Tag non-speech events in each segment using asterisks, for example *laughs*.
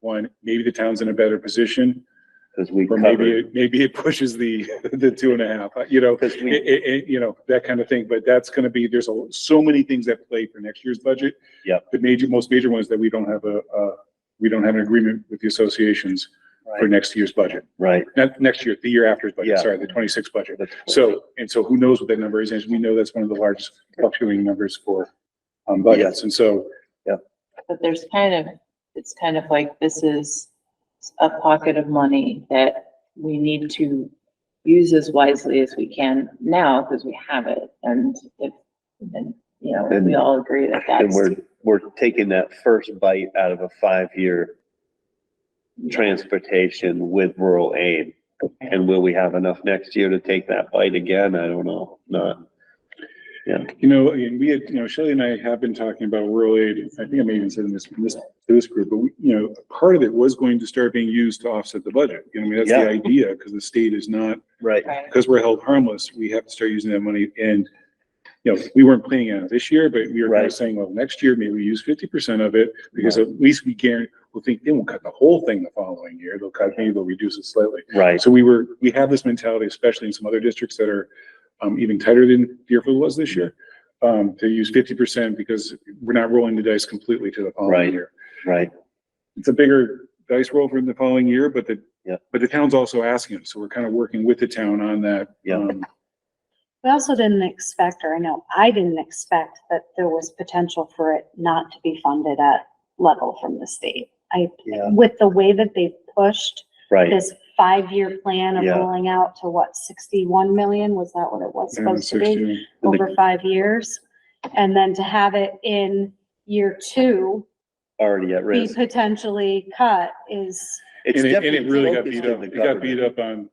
one, maybe the town's in a better position, Cause we or maybe, covered, it maybe it pushes the, *laughs* the two and a half, uh, you know, cause it, we, it- you know, that kind of thing, but that's gonna be, there's a- so many things that play for next year's budget. Yep. The major, most major one is that we don't have a, uh, we don't have an agreement with the associations for Right. next year's budget, right. not next year, the year after's budget, Yeah. sorry, the twenty-six budget. that's- So, and so who knows what that number is, and we know that's one of the largest fluctuating numbers for, um, budgets, and so, But there's kind of, it's kind of like this is a pocket of money that we need to use as wisely as we can now because we have it. And if, and, you know, we all agree that And that's. we're, we're taking that first bite out of a five-year transportation with rural aid. And will we have enough next year to take that bite again? I don't know, not. you know, and we had, you know, Shelley and I have been talking about rural aid, I think I may even said in this, in this, to this group, but we, you know, part of it was going to start being used to offset the budget, you know, I mean, that's the Yeah. idea, because the state is not Right. Right. because we're held harmless, we have to start using that money and, you know, we weren't planning on it this year, but we were kind Right. of saying, well, next year, maybe we use fifty percent of it, because at least we guarantee, we'll think, they won't cut the whole thing the following year, they'll cut, maybe they'll reduce it slightly. Right, So we were, we have this mentality, especially in some other districts that are, um, even tighter than Deerfield was this year, um, to use fifty percent, because we're not rolling the dice completely to the Right. following year right, it's a bigger dice roll for the following year, but the, Yeah. but the town's also asking, it, so we're kind of working with the town on that. Yeah. um, We also didn't expect, or I know I didn't expect that there was potential for it not to be funded at level from the state. I, yeah, with the way that they pushed right, this five-year plan of Yeah. rolling out to what, sixty-one million? Was that what it was and supposed to be? 16. And the- Over five years? And then to have it in year two already at be risk. potentially cut is, It's And it, and it definitely really got focused beat in up, the it got beat government. up on,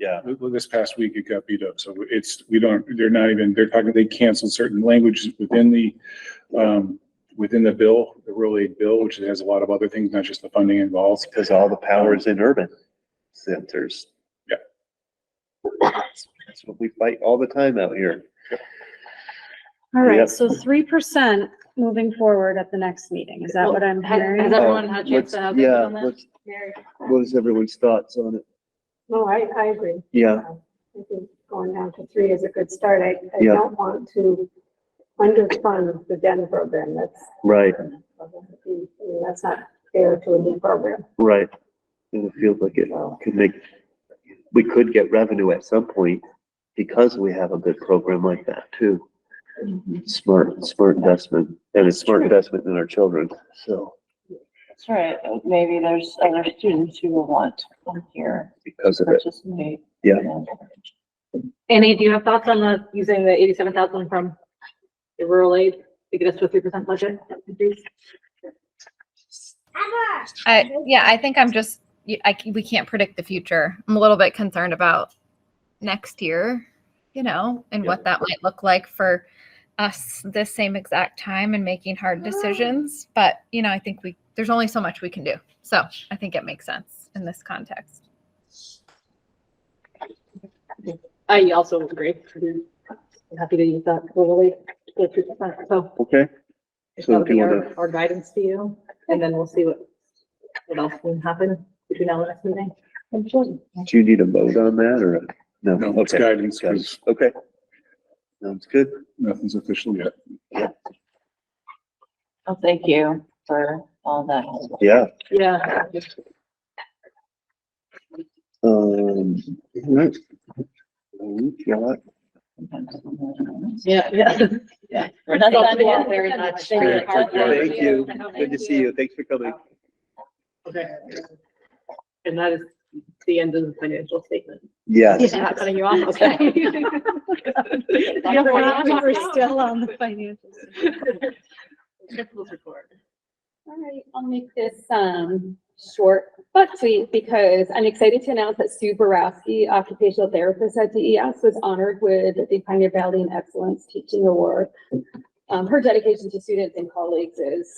Yeah, this past week, it got beat up, so it's, we don't, they're not even, they're talking, they canceled certain languages within the, um, within the bill, the rural aid bill, which has a lot of other things, not just the funding involved. because all the power is in urban centers. Yeah. That's that's what we fight all the time out here. all Yep. right, so three percent moving forward at the next meeting. Is that what I'm Has hearing? has everyone had a chance Uh, What's- to have? Yeah, input on that? what's, Mary? what is everyone's thoughts on it? No, I, I agree. Yeah, Um, I think going down to three is a good start. I, I Yeah. don't want to underfund the den program. That's, right, I mean, that's not fair to a new program. right. And it feels like it So, could make, we could get revenue at some point because we have a good program like that too. Mhm. Smart, smart investment and it's smart investment in our children, so. That's right. Maybe there's other students who will want to come here, Because of it, participate. Yeah. Annie, do you have thoughts on the, using the eighty-seven thousand from the rural aid to get us to a three percent budget increase? I, yeah, I think I'm just, y- I, c- we can't predict the future. I'm a little bit concerned about next year, you know, and what that might look like for us this same exact time and making Ah. hard decisions. But, you know, I think we, there's only so much we can do. So I think it makes sense in this context. I also agree. I'm happy to use that totally, the three percent, so okay, So that'll do be you our, wanna- our guidance to you, and then we'll see what, what else can happen between now and the next meeting. do you need a vote on that or? a- No, No, it's Oh, okay, guidance, Got it. 'cause okay. Sounds good. nothing's official yet. Well, thank you for all that. help. Yeah, Yeah. um, all right. We got Yeah, yeah. We're not done yet. Very much. Thank you. Thank you. Good to see you. Thanks for coming. Okay. And that is the end of the financial statement. Yes. I'm not cutting you off, *laughs* okay? Yeah, we're not- we We're still on the financial. *laughs* Principals report. All right, I'll make this um short but sweet because I'm excited to announce that Sue Borowski, occupational therapist at DES, was honored with the Pioneer Valley in Excellence Teaching Award. Um, her dedication to students and colleagues is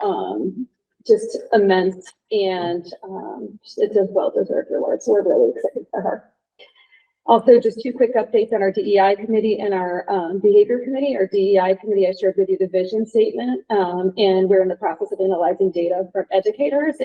um just immense and um it's a well-deserved reward, so we're really excited for her. Also, just two quick updates on our DEI committee and our um, behavior committee. Our DEI committee, I shared with you the vision statement. um, And we're in the process of analyzing data from educators